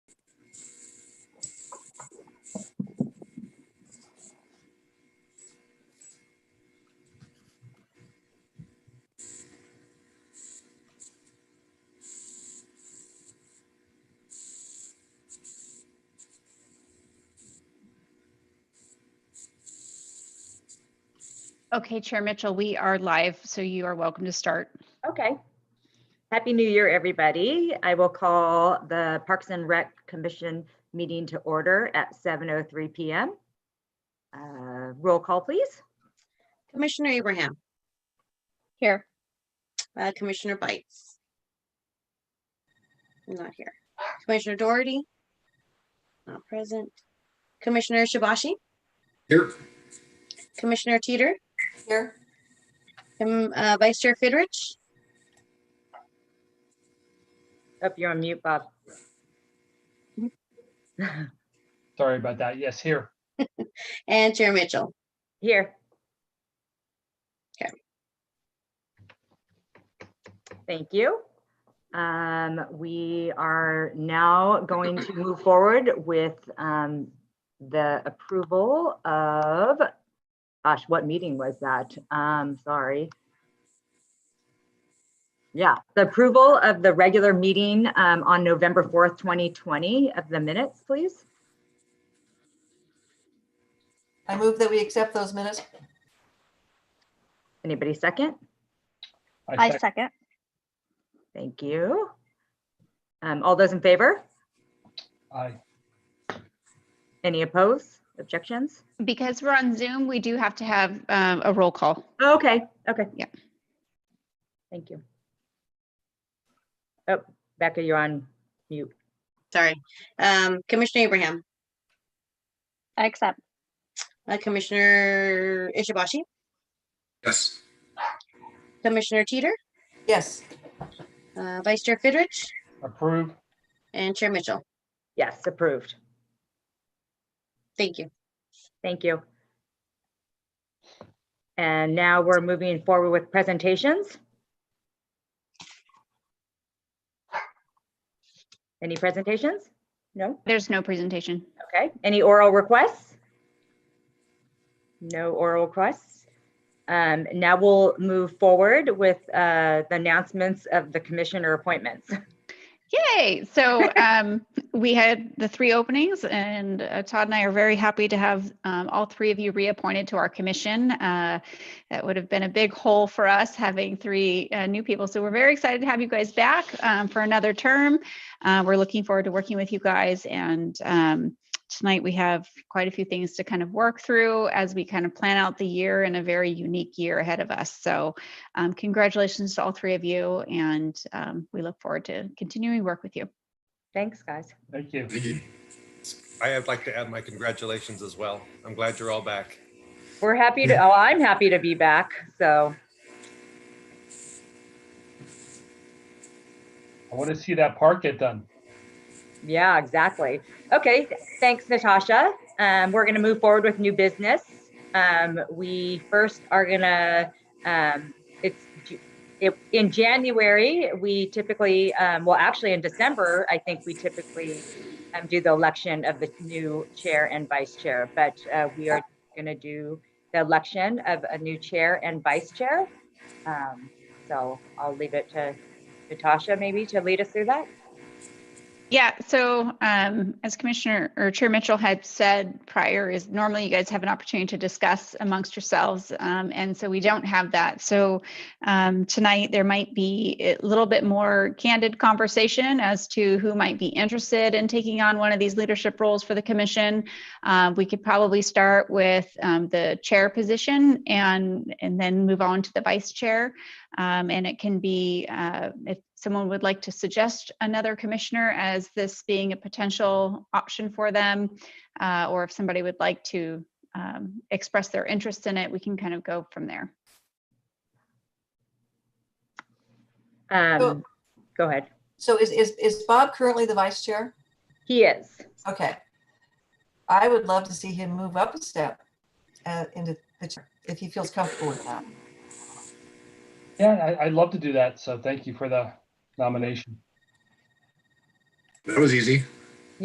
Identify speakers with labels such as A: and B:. A: Okay, Chair Mitchell, we are live, so you are welcome to start.
B: Okay. Happy New Year, everybody. I will call the Parks and Rec Commission meeting to order at 7:03 PM. Uh, Roll call, please.
C: Commissioner Abraham,
A: Here.
C: uh, Commissioner Bites. Not here. Commissioner Doherty. Not present. Commissioner Shibashi,
D: Here.
C: Commissioner Teeter,
E: Here,
C: um, uh, Vice Chair Fidrich,
B: Up, you're on mute, Bob.
F: Sorry about that. Yes, here.
C: and Chair Mitchell.
B: Here.
C: Okay.
B: Thank you. Um, we are now going to move forward with, um, the approval of, gosh, what meeting was that? Um, sorry. Yeah, the approval of the regular meeting, um, on November 4th, 2020 of the minutes, please.
E: I move that we accept those minutes.
B: Anybody second?
F: I sec-
A: second.
B: Thank you. Um, all those in favor?
F: I,
B: Any opposed, objections?
A: Because we're on Zoom, we do have to have um, a roll call.
B: Okay, okay.
A: Yeah.
B: Thank you. Oh, Becca, you're on mute.
C: Sorry. Um, Commissioner Abraham,
A: I accept.
C: uh, Commissioner Ishibashi,
D: Yes.
C: Commissioner Teeter,
E: Yes,
C: uh, Vice Chair Fidrich,
F: approve.
C: and Chair Mitchell.
B: Yes, approved.
C: Thank you.
B: Thank you. And now we're moving forward with presentations. Any presentations? No?
A: There's no presentation.
B: Okay, any oral requests? No oral requests. Um, now we'll move forward with, uh, the announcements of the commissioner appointments.
A: Yay! So um, we had the three openings, and uh, Todd and I are very happy to have um, all three of you reappointed to our commission. Uh, that would have been a big hole for us having three uh, new people. So we're very excited to have you guys back um, for another term. Uh, we're looking forward to working with you guys. And um, tonight we have quite a few things to kind of work through as we kind of plan out the year and a very unique year ahead of us. So um, congratulations to all three of you, and um, we look forward to continuing work with you.
B: Thanks, guys.
F: Thank you.
D: Thank you.
G: I would like to add my congratulations as well. I'm glad you're all back.
B: We're happy to, oh, I'm happy to be back, so,
F: I want to see that park get done.
B: yeah, exactly. Okay, thanks, Natasha. Um, we're gonna move forward with new business. Um, we first are gonna, um, it's, Ju- it, in January, we typically, um, well, actually in December, I think we typically um, do the election of the new chair and vice chair, but, uh, we are gonna do the election of a new chair and vice chair. Um, so I'll leave it to Natasha maybe to lead us through that.
A: Yeah, so um, as Commissioner or Chair Mitchell had said prior, is normally you guys have an opportunity to discuss amongst yourselves, um, and so we don't have that. So um, tonight there might be a little bit more candid conversation as to who might be interested in taking on one of these leadership roles for the commission. Uh, we could probably start with um, the chair position and and then move on to the vice chair. Um, and it can be, uh, if someone would like to suggest another commissioner as this being a potential option for them, uh, or if somebody would like to um, express their interest in it, we can kind of go from there.
B: Um, go ahead.
E: so is, is, is Bob currently the vice chair?
B: He is.
E: Okay. I would love to see him move up a step uh, into the chair, if he feels comfortable with that.
F: Yeah, I, I'd love to do that. So thank you for the nomination.
D: That was easy.